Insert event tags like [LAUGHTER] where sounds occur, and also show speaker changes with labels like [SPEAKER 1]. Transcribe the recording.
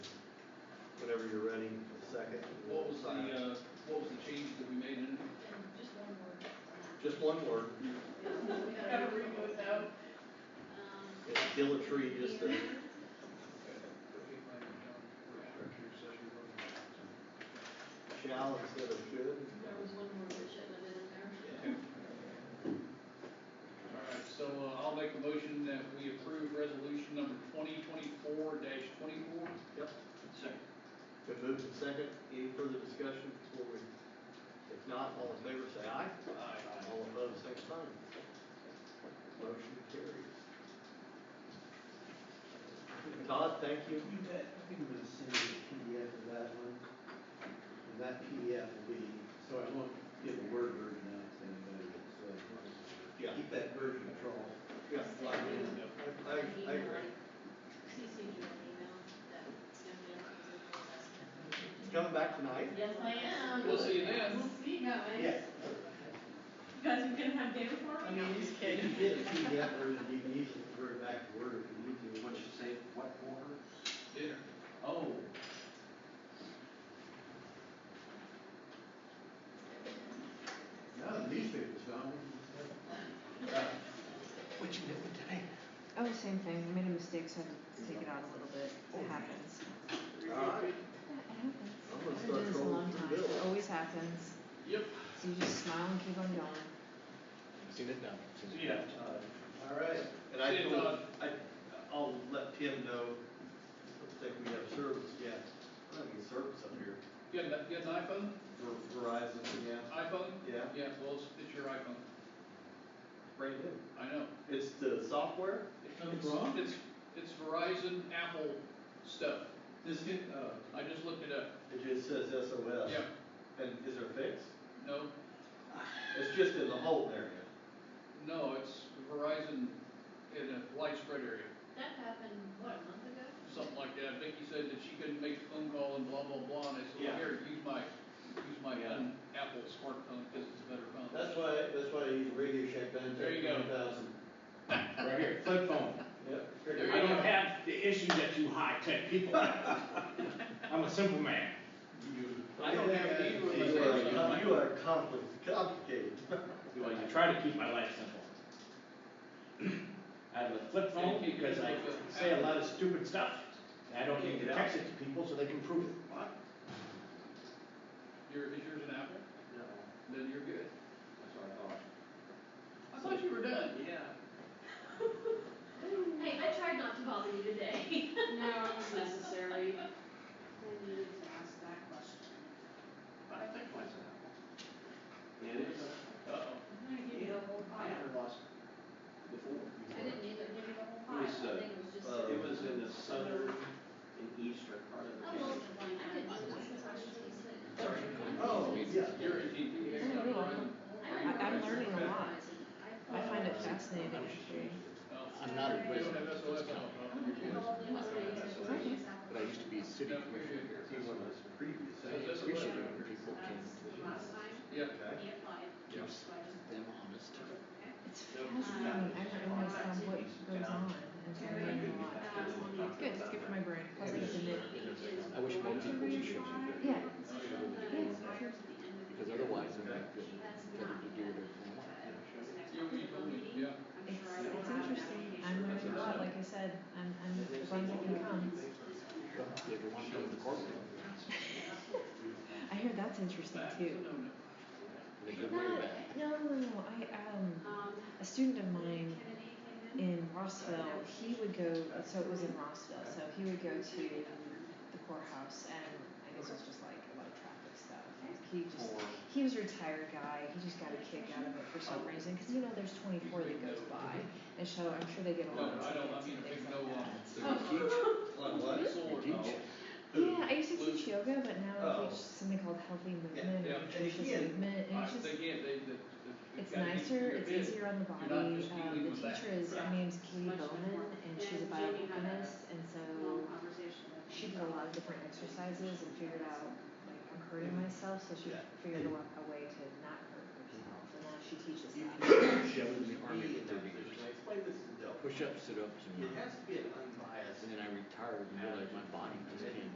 [SPEAKER 1] whenever you're ready, second.
[SPEAKER 2] What was the, uh, what was the change that we made in it?
[SPEAKER 3] Just one word.
[SPEAKER 1] Just one word,
[SPEAKER 3] Gotta remove that. Um,
[SPEAKER 1] it's dilatory, just a, shall instead of should.
[SPEAKER 3] there was one word that should have been in there.
[SPEAKER 2] All right, so uh, I'll make a motion that we approve resolution number twenty twenty-four dash twenty-four.
[SPEAKER 1] Yep.
[SPEAKER 2] Second.
[SPEAKER 1] Been moved and second, any further discussion before we, if not, all in favor say aye.
[SPEAKER 2] Aye.
[SPEAKER 1] All opposed, same sign. Motion carries. Todd, thank you.
[SPEAKER 4] You bet, I think I'm gonna send you a PDF of that one, and that PDF will be, so I won't give a word version out to anybody, so.
[SPEAKER 1] Yeah.
[SPEAKER 4] Keep that version control.
[SPEAKER 1] Yeah, I, I, I agree.
[SPEAKER 3] CC you an email that Cynthia was in the assessment.
[SPEAKER 1] It's coming back tonight.
[SPEAKER 3] Yes, I am.
[SPEAKER 2] We'll see you then.
[SPEAKER 3] We'll see, guys. You guys are gonna have dinner for me? No, I'm just
[SPEAKER 4] You
[SPEAKER 3] kidding.
[SPEAKER 4] get a PDF version, you can use it to convert back to Word if you need to.
[SPEAKER 5] What'd you say, what order?
[SPEAKER 2] Dinner.
[SPEAKER 4] Oh. No, the newspaper's gone.
[SPEAKER 5] What'd you do today?
[SPEAKER 6] Oh, same thing, I made a mistake, so I had to take it out a little bit, it happens.
[SPEAKER 1] All right. Oh. I'm gonna start
[SPEAKER 6] It happens, I've done this a
[SPEAKER 1] calling
[SPEAKER 6] long
[SPEAKER 1] for
[SPEAKER 6] time,
[SPEAKER 1] Bill.
[SPEAKER 6] it always happens,
[SPEAKER 2] Yep.
[SPEAKER 6] so you just smile and keep on going.
[SPEAKER 1] Seen it now.
[SPEAKER 2] Yeah.
[SPEAKER 1] All right, and I
[SPEAKER 2] See you,
[SPEAKER 1] told,
[SPEAKER 2] Todd.
[SPEAKER 1] I, I'll let Tim know, looks like we have service, yeah, we're having service up here.
[SPEAKER 2] You got, you got an iPhone?
[SPEAKER 1] Ver- Verizon, yeah,
[SPEAKER 2] iPhone?
[SPEAKER 1] yeah,
[SPEAKER 2] Yeah, well, it's, it's your iPhone.
[SPEAKER 1] brand new.
[SPEAKER 2] I know.
[SPEAKER 1] It's the software?
[SPEAKER 4] Nothing wrong?
[SPEAKER 2] It's, it's Verizon, Apple stuff.
[SPEAKER 4] This get, uh,
[SPEAKER 2] I just looked it up.
[SPEAKER 1] Oh, It just says SOS.
[SPEAKER 2] Yeah,
[SPEAKER 1] And is there a fix?
[SPEAKER 2] no,
[SPEAKER 1] It's just in the Holton area.
[SPEAKER 2] no, it's Verizon in a light spread area.
[SPEAKER 3] That happened, what, a month ago?
[SPEAKER 2] something like that. Vicky said that she couldn't make the phone call and blah, blah, blah, and I said, well,
[SPEAKER 1] Yeah.
[SPEAKER 2] here, use my, use my
[SPEAKER 1] Yeah.
[SPEAKER 2] phone, Apple smartphone, because it's a better phone.
[SPEAKER 1] That's why, that's why I use Radio Shack Benz.
[SPEAKER 2] There you go.
[SPEAKER 5] Right here, flip phone.
[SPEAKER 2] There
[SPEAKER 1] Yep.
[SPEAKER 2] you
[SPEAKER 5] I
[SPEAKER 2] go.
[SPEAKER 5] don't have the issues that you high-tech people
[SPEAKER 1] [LAUGHS]
[SPEAKER 5] have. I'm a simple man.
[SPEAKER 2] I don't have it either,
[SPEAKER 1] You
[SPEAKER 2] unless I use
[SPEAKER 1] are,
[SPEAKER 2] my-
[SPEAKER 1] you are compli- complicated. [LAUGHS]
[SPEAKER 5] You know, I try to keep my life simple. I have a flip phone because I say a lot of stupid stuff, and I don't need to text it to people so they can prove it.
[SPEAKER 2] Your, is yours an Apple?
[SPEAKER 5] No,
[SPEAKER 2] Then you're good.
[SPEAKER 5] that's what I thought.
[SPEAKER 2] I thought you were done.
[SPEAKER 5] Yeah.
[SPEAKER 3] Hey, I tried not to bother you today.
[SPEAKER 7] No, it was
[SPEAKER 3] [LAUGHS]
[SPEAKER 7] necessary. I needed to ask that question.
[SPEAKER 5] But I think mine's an Apple. Yeah, it is.
[SPEAKER 2] Uh-oh.
[SPEAKER 7] I'm gonna give you the whole
[SPEAKER 5] I
[SPEAKER 7] pile.
[SPEAKER 5] never lost before.
[SPEAKER 3] I didn't either give you the whole
[SPEAKER 5] It
[SPEAKER 3] pile, I
[SPEAKER 5] was, uh,
[SPEAKER 3] think it was just.
[SPEAKER 1] uh,
[SPEAKER 3] sort of-
[SPEAKER 5] It was in the southern and eastern part of the
[SPEAKER 3] I
[SPEAKER 5] county.
[SPEAKER 3] will, Oh, I could do this if I should have said.
[SPEAKER 2] Sorry.
[SPEAKER 4] Oh, yeah.
[SPEAKER 2] You're a TP.
[SPEAKER 6] Isn't it
[SPEAKER 3] I
[SPEAKER 6] really?
[SPEAKER 3] remember
[SPEAKER 6] I'm learning a
[SPEAKER 3] I
[SPEAKER 6] lot. I
[SPEAKER 3] thought-
[SPEAKER 6] find it
[SPEAKER 1] Oh.
[SPEAKER 6] fascinating, actually.
[SPEAKER 2] I'm You Oh.
[SPEAKER 8] I'm not a
[SPEAKER 2] don't
[SPEAKER 8] wizard,
[SPEAKER 2] have SOS on your phone.
[SPEAKER 3] It must be-
[SPEAKER 8] but I used to be a city
[SPEAKER 2] No, you're
[SPEAKER 8] commissioner.
[SPEAKER 2] good.
[SPEAKER 1] See one of those previous.
[SPEAKER 2] Is this a
[SPEAKER 8] Years
[SPEAKER 2] letter?
[SPEAKER 8] ago, people
[SPEAKER 3] um,
[SPEAKER 8] came
[SPEAKER 7] That's the last time
[SPEAKER 2] Yeah.
[SPEAKER 1] Okay.
[SPEAKER 7] he applied.
[SPEAKER 2] Yeah.
[SPEAKER 7] So I just-
[SPEAKER 8] to them honest.
[SPEAKER 7] Okay.
[SPEAKER 6] It's fascinating, I don't understand what goes on, and so I learn
[SPEAKER 3] Um,
[SPEAKER 6] a lot. It's good, it's good for my brain, plus I get to knit.
[SPEAKER 8] I wish more people would change it,
[SPEAKER 6] Yeah,
[SPEAKER 2] Oh,
[SPEAKER 7] It's prior to the end of the
[SPEAKER 8] because
[SPEAKER 7] year.
[SPEAKER 8] otherwise then they could,
[SPEAKER 7] That's
[SPEAKER 8] they
[SPEAKER 7] not
[SPEAKER 8] could do
[SPEAKER 7] yet,
[SPEAKER 8] whatever they want.
[SPEAKER 7] but this next
[SPEAKER 2] You, you told me, yeah.
[SPEAKER 7] I'm
[SPEAKER 6] it's,
[SPEAKER 7] sure I will
[SPEAKER 6] it's
[SPEAKER 7] have an
[SPEAKER 6] interesting, I'm
[SPEAKER 7] application.
[SPEAKER 6] learning a lot, like I said, I'm, I'm, the bundle that comes.
[SPEAKER 8] They ever want to go to the courtroom,
[SPEAKER 6] I hear that's interesting
[SPEAKER 2] That's a
[SPEAKER 6] too.
[SPEAKER 2] no-no.
[SPEAKER 8] they
[SPEAKER 6] No,
[SPEAKER 8] go way back.
[SPEAKER 6] no, no, no, I, um,
[SPEAKER 7] Um,
[SPEAKER 6] a student of mine
[SPEAKER 7] Kennedy came in.
[SPEAKER 6] in Rossville, he would go, uh, so it was in Rossville, so he would go to um, the courthouse and I guess it was just like a lot of traffic stuff. He just, he was a retired guy, he just got a kick out of it for some reason, cause you know, there's twenty-four that goes by. And so I'm sure they get a
[SPEAKER 2] No,
[SPEAKER 6] lot of
[SPEAKER 2] I don't, I
[SPEAKER 6] tickets
[SPEAKER 2] mean, a big
[SPEAKER 6] and things
[SPEAKER 2] no um,
[SPEAKER 6] like
[SPEAKER 2] on.
[SPEAKER 6] that.
[SPEAKER 1] Like what?
[SPEAKER 2] Solar
[SPEAKER 8] You
[SPEAKER 2] power.
[SPEAKER 8] teach?
[SPEAKER 6] Yeah, I used to teach yoga, but now
[SPEAKER 1] Oh.
[SPEAKER 6] I teach something called healthy movement,
[SPEAKER 2] yeah.
[SPEAKER 6] and nutritious
[SPEAKER 1] Yeah.
[SPEAKER 6] movement, and
[SPEAKER 2] I
[SPEAKER 6] it's just,
[SPEAKER 2] think, yeah, they, they.
[SPEAKER 6] it's nicer, it's easier on the
[SPEAKER 2] You're not
[SPEAKER 6] body.
[SPEAKER 2] just
[SPEAKER 6] Um,
[SPEAKER 2] dealing
[SPEAKER 6] the
[SPEAKER 2] with that.
[SPEAKER 6] teacher is, her
[SPEAKER 7] Yeah.
[SPEAKER 6] name's Katie
[SPEAKER 7] Much
[SPEAKER 6] Bowman,
[SPEAKER 7] more.
[SPEAKER 6] and she's
[SPEAKER 7] And Jamie
[SPEAKER 6] a
[SPEAKER 7] had a
[SPEAKER 6] biomechanicist, and so
[SPEAKER 7] Long conversation with
[SPEAKER 6] she
[SPEAKER 7] him.
[SPEAKER 6] did a lot of different exercises and figured out, like, I'm hurting myself, so she
[SPEAKER 1] Yeah.
[SPEAKER 6] figured out a way to not hurt herself, and now she teaches
[SPEAKER 1] You
[SPEAKER 6] that.
[SPEAKER 1] can
[SPEAKER 8] She was in the
[SPEAKER 1] be
[SPEAKER 8] army
[SPEAKER 1] in that
[SPEAKER 8] for 30 years.
[SPEAKER 1] position. I explained this to Del.
[SPEAKER 8] Push-ups, sit-ups, and,
[SPEAKER 1] It has to be an unbiased.
[SPEAKER 8] and then I retired and realized my body just can't